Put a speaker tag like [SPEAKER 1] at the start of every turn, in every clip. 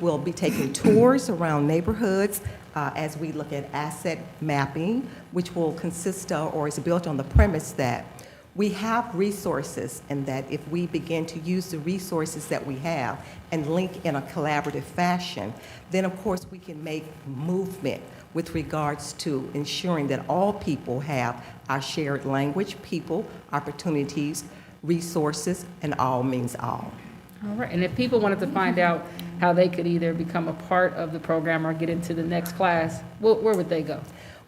[SPEAKER 1] We'll be taking tours around neighborhoods uh, as we look at asset mapping, which will consist of, or is built on the premise that we have resources and that if we begin to use the resources that we have and link in a collaborative fashion, then of course we can make movement with regards to ensuring that all people have our shared language, people, opportunities, resources, and all means all.
[SPEAKER 2] All right, and if people wanted to find out how they could either become a part of the program or get into the next class, where, where would they go?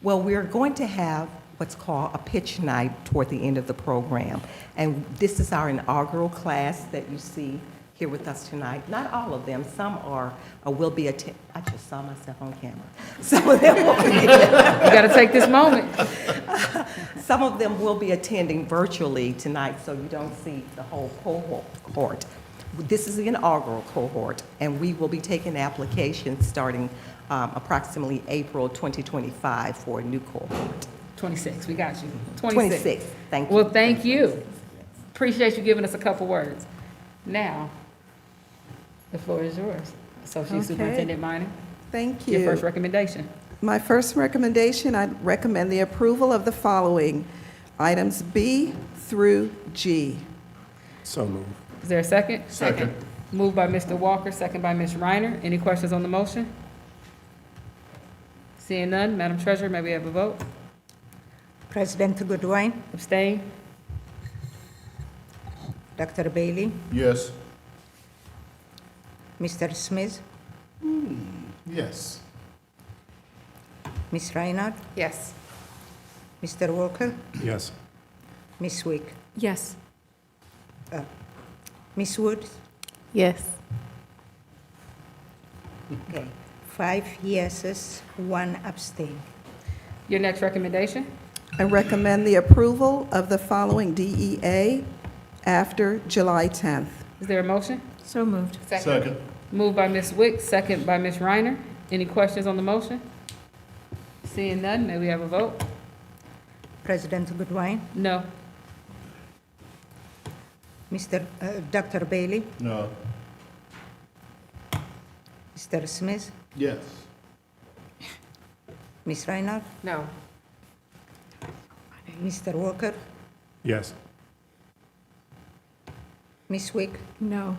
[SPEAKER 1] Well, we're going to have what's called a pitch night toward the end of the program. And this is our inaugural class that you see here with us tonight. Not all of them, some are, uh, will be, atten- I just saw myself on camera. Some of them will be
[SPEAKER 2] You gotta take this moment.
[SPEAKER 1] some of them will be attending virtually tonight, so you don't see the whole cohort. This is the inaugural cohort, and we will be taking applications starting um, approximately April 2025 for a new cohort.
[SPEAKER 2] Twenty-six, we got you.
[SPEAKER 1] 26, thank you.
[SPEAKER 2] Well, thank you. Appreciate you giving us a couple words. Now, the floor is yours. Associate
[SPEAKER 3] Okay.
[SPEAKER 2] Superintendent Minor,
[SPEAKER 3] Thank
[SPEAKER 2] your first
[SPEAKER 3] you.
[SPEAKER 2] recommendation.
[SPEAKER 3] My first recommendation, I recommend the approval of the following, items B through G.
[SPEAKER 4] So move.
[SPEAKER 2] Is there a second? Second. Moved by Mr. Walker, second by Ms. Reiner. Any questions on the motion? Seeing none, Madam Treasurer, may we have a vote?
[SPEAKER 5] President Goodwin,
[SPEAKER 2] Abstain?
[SPEAKER 5] Dr. Bailey,
[SPEAKER 4] Yes.
[SPEAKER 5] Mr. Smith,
[SPEAKER 4] Yes.
[SPEAKER 5] Ms. Reinhardt,
[SPEAKER 2] Yes.
[SPEAKER 5] Mr. Walker,
[SPEAKER 4] Yes.
[SPEAKER 5] Ms. Wick, Uh,
[SPEAKER 6] Yes.
[SPEAKER 5] Ms. Woods.
[SPEAKER 6] Yes.
[SPEAKER 5] Okay. Five yeses, one abstain.
[SPEAKER 2] Your next recommendation?
[SPEAKER 3] I recommend the approval of the following DEA after July 10th.
[SPEAKER 2] Is there a motion?
[SPEAKER 6] So moved.
[SPEAKER 4] Second.
[SPEAKER 2] Moved by Ms. Wick, second by Ms. Reiner. Any questions on the motion? Seeing none, may we have a vote?
[SPEAKER 5] President Goodwin,
[SPEAKER 2] No.
[SPEAKER 5] Mr. uh, Dr. Bailey,
[SPEAKER 4] No.
[SPEAKER 5] Mr. Smith,
[SPEAKER 4] Yes.
[SPEAKER 5] Ms. Reinhardt,
[SPEAKER 2] No.
[SPEAKER 5] Mr. Walker,
[SPEAKER 4] Yes.
[SPEAKER 5] Ms. Wick,
[SPEAKER 6] No.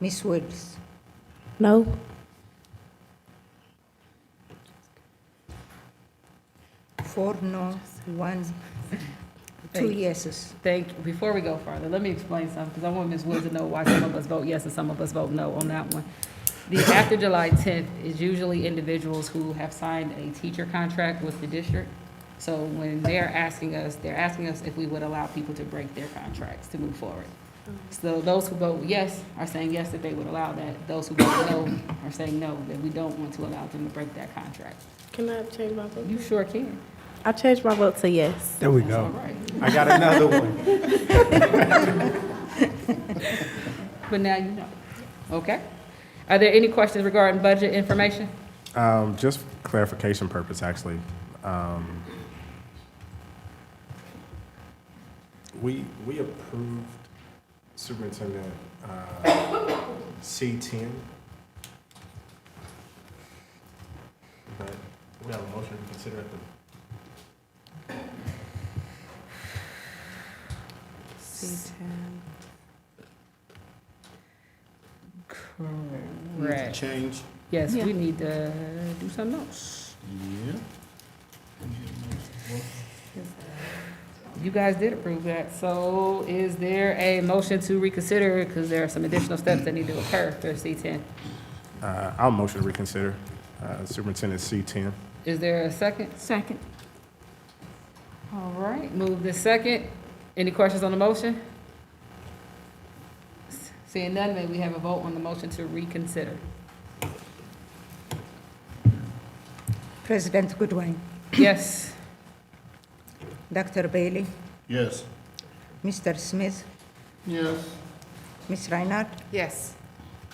[SPEAKER 5] Ms. Woods.
[SPEAKER 6] No.
[SPEAKER 5] Four no, one, two yeses.
[SPEAKER 2] Thank, before we go further, let me explain something, because I want Ms. Woods to know why some of us vote yes and some of us vote no on that one. The after July 10th is usually individuals who have signed a teacher contract with the district. So when they're asking us, they're asking us if we would allow people to break their contracts to move forward. So those who vote yes are saying yes that they would allow that. Those who vote no are saying no, that we don't want to allow them to break that contract.
[SPEAKER 6] Can I change my vote?
[SPEAKER 2] You sure can.
[SPEAKER 6] I changed my vote to yes.
[SPEAKER 4] There we
[SPEAKER 2] That's all right.
[SPEAKER 4] I got another one.
[SPEAKER 2] But now you know. Okay. Are there any questions regarding budget information?
[SPEAKER 7] Um, just for clarification purpose, actually. Um, we, we approved Superintendent, uh, C ten. But we have a motion to consider at the
[SPEAKER 2] Correct.
[SPEAKER 4] Change.
[SPEAKER 2] Yes,
[SPEAKER 6] Yeah.
[SPEAKER 2] we need to do something else.
[SPEAKER 4] Yeah.
[SPEAKER 2] You guys did approve that, so is there a motion to reconsider? Because there are some additional steps that need to occur for C ten.
[SPEAKER 7] Uh, I'll motion to reconsider, uh, Superintendent C ten.
[SPEAKER 2] Is there a second?
[SPEAKER 6] Second.
[SPEAKER 2] All right, move the second. Any questions on the motion? Seeing none, may we have a vote on the motion to reconsider?
[SPEAKER 5] President Goodwin,
[SPEAKER 2] Yes.
[SPEAKER 5] Dr. Bailey,
[SPEAKER 4] Yes.
[SPEAKER 5] Mr. Smith,
[SPEAKER 4] Yes.
[SPEAKER 5] Ms. Reinhardt,
[SPEAKER 2] Yes.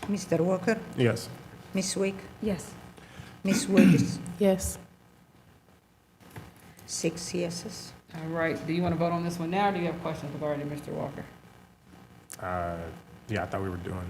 [SPEAKER 5] Mr. Walker,
[SPEAKER 7] Yes.
[SPEAKER 5] Ms. Wick,
[SPEAKER 6] Yes.
[SPEAKER 5] Ms. Woods.
[SPEAKER 6] Yes.
[SPEAKER 5] Six yeses.
[SPEAKER 2] All right, do you want to vote on this one now, or do you have questions regarding Mr. Walker?
[SPEAKER 7] Uh, yeah, I thought we were doing